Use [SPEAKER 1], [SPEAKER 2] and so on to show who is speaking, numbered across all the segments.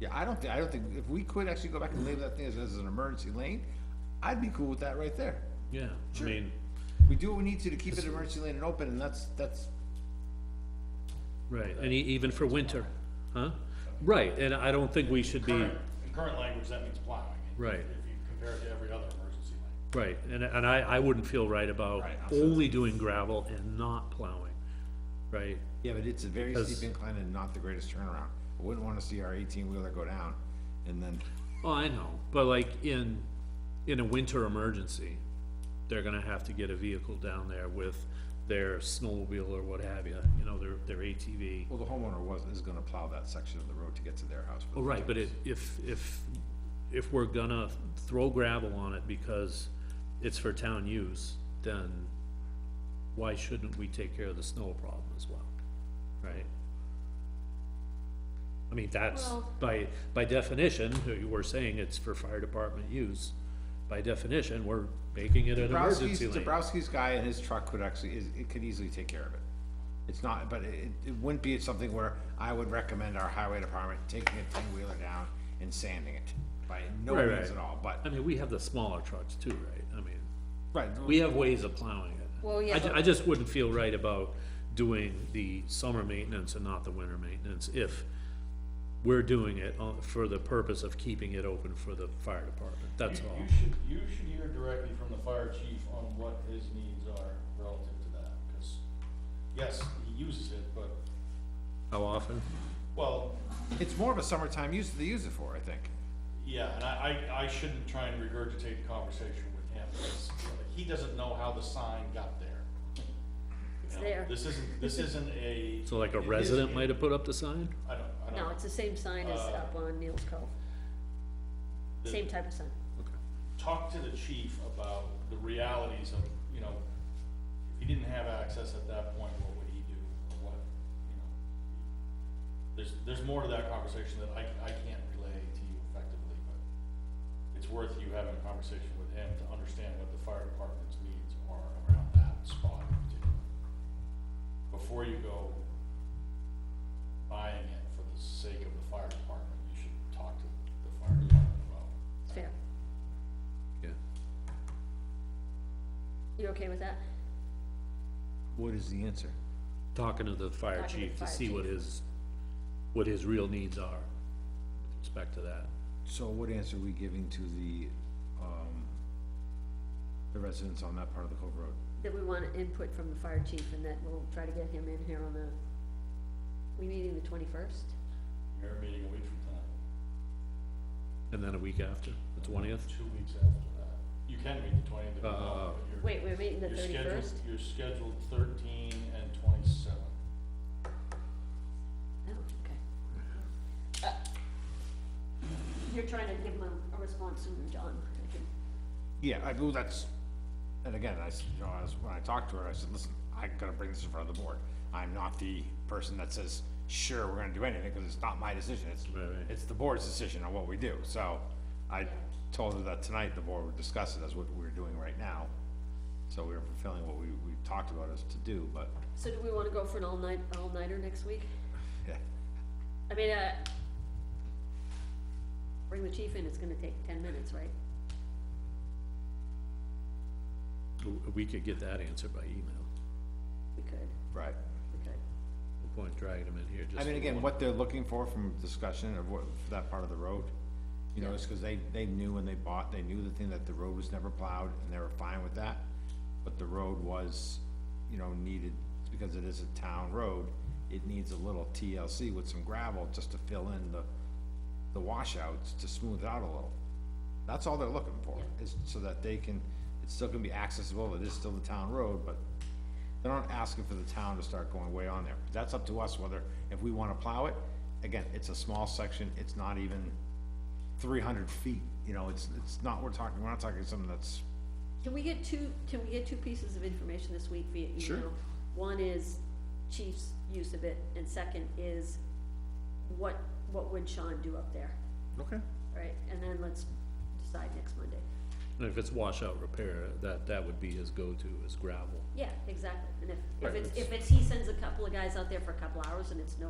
[SPEAKER 1] Yeah, I don't think, I don't think, if we could actually go back and label that thing as, as an emergency lane, I'd be cool with that right there.
[SPEAKER 2] Yeah, I
[SPEAKER 1] Sure.
[SPEAKER 2] mean,
[SPEAKER 1] We do what we need to to keep it an emergency lane and open, and that's, that's,
[SPEAKER 2] right, and e- even for winter, huh? Right, and I don't think we should be,
[SPEAKER 3] Current, in current language, that means plowing.
[SPEAKER 2] Right.
[SPEAKER 3] If you compare it to every other emergency lane.
[SPEAKER 2] right, and, and I, I wouldn't feel right about
[SPEAKER 3] Right, I'm
[SPEAKER 2] only doing gravel and not plowing, right?
[SPEAKER 1] yeah, but it's a very
[SPEAKER 2] Because-
[SPEAKER 1] steep incline and not the greatest turnaround. I wouldn't wanna see our eighteen wheeler go down, and then,
[SPEAKER 2] Oh, I know, but like in, in a winter emergency, they're gonna have to get a vehicle down there with their snowmobile or what have you, you know, their, their ATV.
[SPEAKER 1] well, the homeowner was, is gonna plow that section of the road to get to their house.
[SPEAKER 2] Well, right, but it, if, if, if we're gonna throw gravel on it because it's for town use, then why shouldn't we take care of the snow problem as well, right? I mean, that's,
[SPEAKER 4] Well-
[SPEAKER 2] by, by definition, we're saying it's for fire department use. By definition, we're making it an
[SPEAKER 1] Dabrowski's,
[SPEAKER 2] emergency lane.
[SPEAKER 1] Dabrowski's guy and his truck could actually, is, it could easily take care of it. It's not, but it, it wouldn't be something where I would recommend our highway department taking a ten-wheeler down and sanding it, by no
[SPEAKER 2] Right,
[SPEAKER 1] means
[SPEAKER 2] right.
[SPEAKER 1] at all, but,
[SPEAKER 2] I mean, we have the smaller trucks too, right? I mean,
[SPEAKER 1] right,
[SPEAKER 2] we have ways of plowing it.
[SPEAKER 4] Well, yeah,
[SPEAKER 2] I, ju-
[SPEAKER 4] but-
[SPEAKER 2] I just wouldn't feel right about doing the summer maintenance and not the winter maintenance if we're doing it on- for the purpose of keeping it open for the fire department, that's
[SPEAKER 3] You-
[SPEAKER 2] all.
[SPEAKER 3] You should, you should hear directly from the fire chief on what his needs are relative to that, because, yes, he uses it, but,
[SPEAKER 2] How often?
[SPEAKER 3] well,
[SPEAKER 1] it's more of a summertime use that they use it for, I think.
[SPEAKER 3] yeah, and I, I, I shouldn't try and regurgitate the conversation with him, because he doesn't know how the sign got there.
[SPEAKER 4] It's
[SPEAKER 3] You know,
[SPEAKER 4] there.
[SPEAKER 3] This isn't, this isn't a.
[SPEAKER 2] So like a
[SPEAKER 3] it is
[SPEAKER 2] resident
[SPEAKER 3] a-
[SPEAKER 2] might have put up the sign?
[SPEAKER 3] I don't, I don't.
[SPEAKER 4] No, it's the same sign as
[SPEAKER 3] Uh,
[SPEAKER 4] up on Neal's Cove,
[SPEAKER 3] the-
[SPEAKER 4] same type of sign.
[SPEAKER 3] talk to the chief about the realities of, you know, if he didn't have access at that point, what would he do, or what, you know? There's, there's more to that conversation that I, I can't relay to you effectively, but it's worth you having a conversation with him to understand what the fire department's needs are around that spot in particular. Before you go buying it for the sake of the fire department, you should talk to the fire department about
[SPEAKER 4] It's fair.
[SPEAKER 2] Yeah.
[SPEAKER 4] You okay with that?
[SPEAKER 1] What is the answer?
[SPEAKER 2] Talking to the fire
[SPEAKER 4] Talking to
[SPEAKER 2] chief to
[SPEAKER 4] fire
[SPEAKER 2] see what
[SPEAKER 4] chief.
[SPEAKER 2] his, what his real needs are with respect to that.
[SPEAKER 1] So what answer are we giving to the, um, the residents on that part of the Cove Road?
[SPEAKER 4] That we want input from the fire chief and that we'll try to get him in here on the, we meeting the twenty-first?
[SPEAKER 3] Mayor meeting a week from tonight,
[SPEAKER 2] And then a week after, the twentieth?
[SPEAKER 3] two weeks after that. You can meet the twentieth if you
[SPEAKER 2] Uh,
[SPEAKER 3] want, but you're.
[SPEAKER 4] Wait, we're meeting the
[SPEAKER 3] you're scheduled-
[SPEAKER 4] thirty-first?
[SPEAKER 3] You're scheduled thirteen and twenty-seven.
[SPEAKER 4] Oh, okay. Uh, You're trying to give him a- a response sooner, John, I think.
[SPEAKER 1] Yeah, I, well, that's, and again, I, s- you know, I was, when I talked to her, I said, listen, I gotta bring this in front of the board. I'm not the person that says, sure, we're gonna do anything, cause it's not my decision, it's,
[SPEAKER 2] Right, right.
[SPEAKER 1] it's the board's decision on what we do, so. I told her that tonight the board would discuss it, that's what we're doing right now. So we we're fulfilling what we, we talked about us to do, but,
[SPEAKER 4] So do we wanna go for an all-night, all-nighter next week?
[SPEAKER 1] yeah,
[SPEAKER 4] I mean, uh, bring the chief in, it's gonna take ten minutes, right?
[SPEAKER 2] We could get that answer by email.
[SPEAKER 4] We could,
[SPEAKER 1] right.
[SPEAKER 4] we could.
[SPEAKER 2] No point dragging them in here just.
[SPEAKER 1] I mean,
[SPEAKER 2] for
[SPEAKER 1] again,
[SPEAKER 2] one-
[SPEAKER 1] what they're looking for from discussion of what, for that part of the road, you know, is because they, they knew when they bought, they knew the thing that the road was never plowed, and they were fine with that. But the road was, you know, needed, because it is a town road, it needs a little TLC with some gravel just to fill in the, the washouts, to smooth it out a little. That's all they're looking for, is so that they can, it's still gonna be accessible, it is still the town road, but they're not asking for the town to start going way on there. That's up to us whether, if we wanna plow it, again, it's a small section, it's not even three hundred feet, you know, it's, it's not, we're talking, we're not talking something that's,
[SPEAKER 4] Can we get two, can we get two pieces of information this week via email?
[SPEAKER 1] Sure.
[SPEAKER 4] One is chief's use of it, and second is what, what would Sean do up there,
[SPEAKER 1] okay,
[SPEAKER 4] right? And then let's decide next Monday.
[SPEAKER 2] And if it's washout repair, that, that would be his go-to, is gravel.
[SPEAKER 4] Yeah, exactly, and if,
[SPEAKER 2] Right,
[SPEAKER 4] if it's,
[SPEAKER 2] it's-
[SPEAKER 4] if it's, he sends a couple of guys out there for a couple hours and it's no,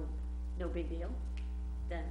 [SPEAKER 4] no big deal, then